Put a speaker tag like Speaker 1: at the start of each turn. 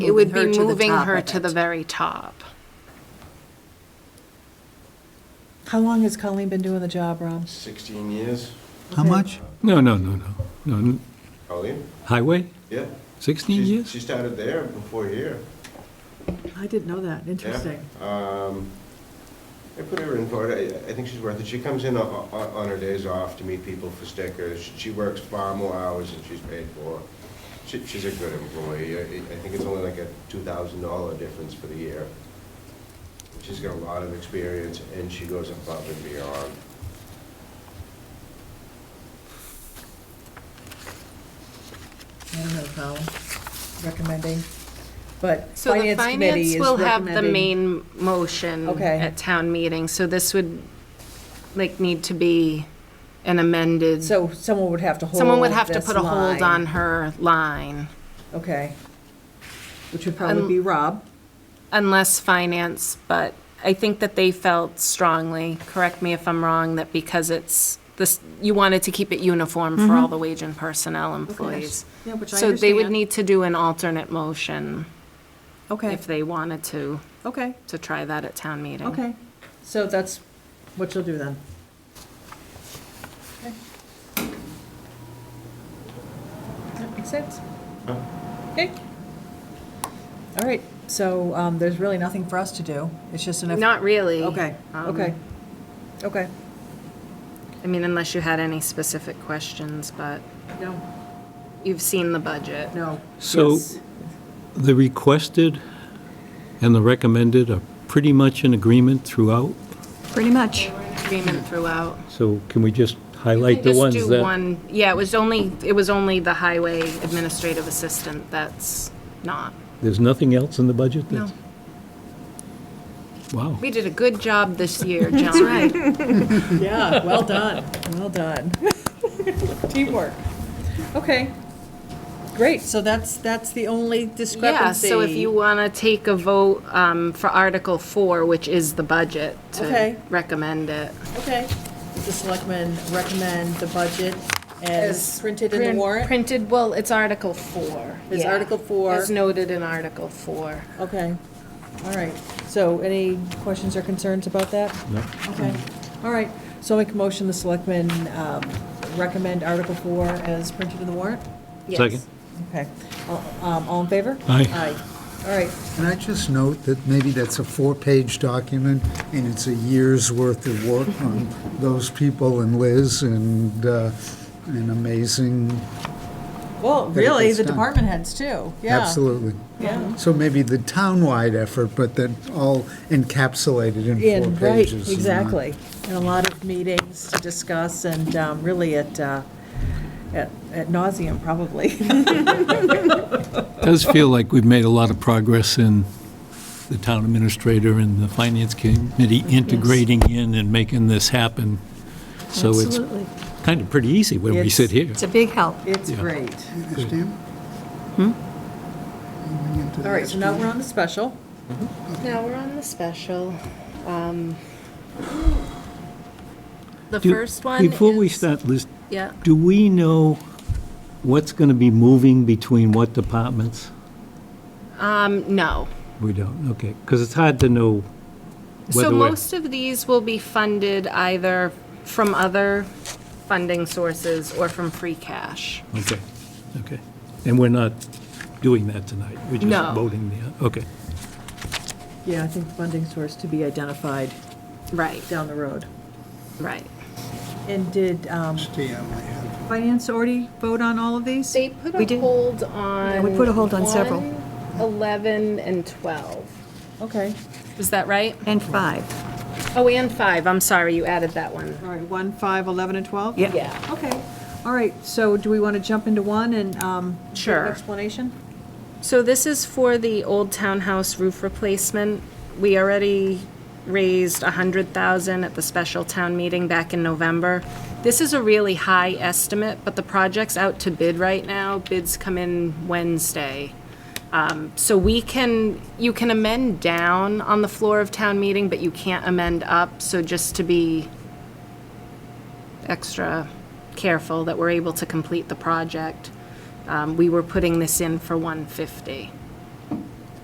Speaker 1: It would be
Speaker 2: Moving her to the
Speaker 1: moving
Speaker 2: top
Speaker 1: her
Speaker 2: of
Speaker 1: to the
Speaker 2: it.
Speaker 1: very top.
Speaker 3: How long has Colleen been doing the job, Rob?
Speaker 4: 16 years.
Speaker 5: How much?
Speaker 6: No, no, no, no, no. n-
Speaker 4: Oh, yeah?
Speaker 6: Highway,
Speaker 4: Yeah.
Speaker 6: 16
Speaker 4: She-
Speaker 6: years?
Speaker 4: She started there before here.
Speaker 3: I didn't know that,
Speaker 4: Yeah. Um, I put her in for it. I I think she's worth it. She comes in o- o- on her days off to meet people for stickers. She- She works far more hours than she's paid for. She- She's a good employee. I I think it's only like a $2,000 difference for the year. She's got a lot of experience, and she goes above and beyond.
Speaker 3: I don't know, Colin, recommending, but
Speaker 1: So the
Speaker 3: Finance Committee
Speaker 1: finance
Speaker 3: is
Speaker 1: will have the
Speaker 3: recommending.
Speaker 1: main motion
Speaker 3: Okay.
Speaker 1: at town meeting, so this would, like, need to be an amended,
Speaker 3: So someone would have to hold
Speaker 1: someone would have to
Speaker 3: this
Speaker 1: put a hold
Speaker 3: line.
Speaker 1: on her line,
Speaker 3: Okay. Which would
Speaker 1: Um,
Speaker 3: probably be Rob.
Speaker 1: unless finance, but I think that they felt strongly, correct me if I'm wrong, that because it's, this, you wanted to keep it uniform for all the wage and personnel employees.
Speaker 3: Mm-hmm. Yeah, which I
Speaker 1: So they would
Speaker 3: understand.
Speaker 1: need to do an alternate motion
Speaker 3: Okay,
Speaker 1: if they wanted to,
Speaker 3: okay,
Speaker 1: to try that at town meeting.
Speaker 3: okay. So that's what you'll do then. Okay. That makes sense. Okay. All right, so um, there's really nothing for us to do. It's just an.
Speaker 1: Not really.
Speaker 3: Okay,
Speaker 1: Um,
Speaker 3: okay, okay.
Speaker 1: I mean, unless you had any specific questions, but
Speaker 3: No,
Speaker 1: you've seen the budget.
Speaker 3: no.
Speaker 6: So
Speaker 3: yes.
Speaker 6: the requested and the recommended are pretty much in agreement throughout,
Speaker 2: Pretty much.
Speaker 1: Agreement throughout.
Speaker 6: so can we just highlight the ones
Speaker 1: Just do
Speaker 6: that?
Speaker 1: one, yeah, it was only, it was only the highway administrative assistant that's not.
Speaker 6: There's nothing else in the budget that's? Wow,
Speaker 1: We did a good job this year, John. That's right.
Speaker 3: Yeah, well done, well done. Teamwork. Okay, great, so that's, that's the only
Speaker 1: Yeah,
Speaker 3: discrepancy.
Speaker 1: so if you want to take a vote um, for Article 4, which is the budget,
Speaker 3: Okay.
Speaker 1: to recommend it.
Speaker 3: Okay, the selectmen recommend the budget as printed in the
Speaker 1: Print-
Speaker 3: warrant?
Speaker 1: Printed, well, it's Article 4.
Speaker 3: It's
Speaker 1: yeah.
Speaker 3: Article 4.
Speaker 1: As noted in Article 4.
Speaker 3: Okay, all right, so any questions or concerns about that?
Speaker 6: no,
Speaker 3: Okay, all right, so I make a motion, the selectmen um, recommend Article 4 as printed in the warrant?
Speaker 1: Yes.
Speaker 6: Second.
Speaker 3: Okay, all um, all in favor?
Speaker 6: Aye.
Speaker 3: Aye, all right,
Speaker 5: Can I just note that maybe that's a four-page document, and it's a year's worth of work on those people and Liz and uh, an amazing,
Speaker 3: Well,
Speaker 5: that it
Speaker 3: really,
Speaker 5: gets
Speaker 3: the
Speaker 5: done.
Speaker 3: department heads too, yeah.
Speaker 5: absolutely.
Speaker 3: Yeah.
Speaker 5: So maybe the town-wide effort, but that all encapsulated in four
Speaker 3: And, right,
Speaker 5: pages. and not-
Speaker 3: exactly. And a lot of meetings to discuss and um, really at, uh, at at nauseam probably.
Speaker 6: does feel like we've made a lot of progress in the town administrator and the finance committee integrating in and making this happen. So it's
Speaker 2: Absolutely.
Speaker 6: kind of pretty easy when we
Speaker 3: It's-
Speaker 6: sit here.
Speaker 2: It's a big help.
Speaker 3: It's
Speaker 6: Yeah.
Speaker 3: great.
Speaker 5: You Understand? Moving into the
Speaker 3: Hmm? All right, so now we're on the special.
Speaker 1: Now we're on the special. Um, The
Speaker 6: Do-
Speaker 1: first one is...
Speaker 6: Before we start, Liz,
Speaker 1: Yeah.
Speaker 6: do we know what's going to be moving between what departments?
Speaker 1: Um, no.
Speaker 6: We don't, okay, because it's hard to know
Speaker 1: So
Speaker 6: whether we're...
Speaker 1: most of these will be funded either from other funding sources or from free cash.
Speaker 6: Okay, okay. And we're not doing that tonight? We're
Speaker 1: No.
Speaker 6: just voting the, okay.
Speaker 3: Yeah, I think funding source to be identified
Speaker 1: Right,
Speaker 3: down the road.
Speaker 1: right.
Speaker 3: And did um,
Speaker 5: Stay on my head.
Speaker 3: finance already vote on all of these?
Speaker 1: They put
Speaker 2: We
Speaker 1: a
Speaker 2: did.
Speaker 1: hold on...
Speaker 2: we put a hold on several.
Speaker 1: 1, 11, and 12.
Speaker 3: Okay,
Speaker 1: Is that right?
Speaker 2: And five.
Speaker 1: Oh, and 5, I'm sorry, you added that one.
Speaker 3: all right, 1, 5, 11, and 12?
Speaker 2: Yeah.
Speaker 1: Yeah.
Speaker 3: Okay, all right, so do we want to jump into one and um, give an
Speaker 1: Sure.
Speaker 3: explanation?
Speaker 1: So this is for the old townhouse roof replacement. We already raised a hundred thousand at the special town meeting back in November. This is a really high estimate, but the project's out to bid right now. Bids come in Wednesday. Um, so we can, you can amend down on the floor of town meeting, but you can't amend up. So just to be extra careful that we're able to complete the project. Um, We were putting this in for 150.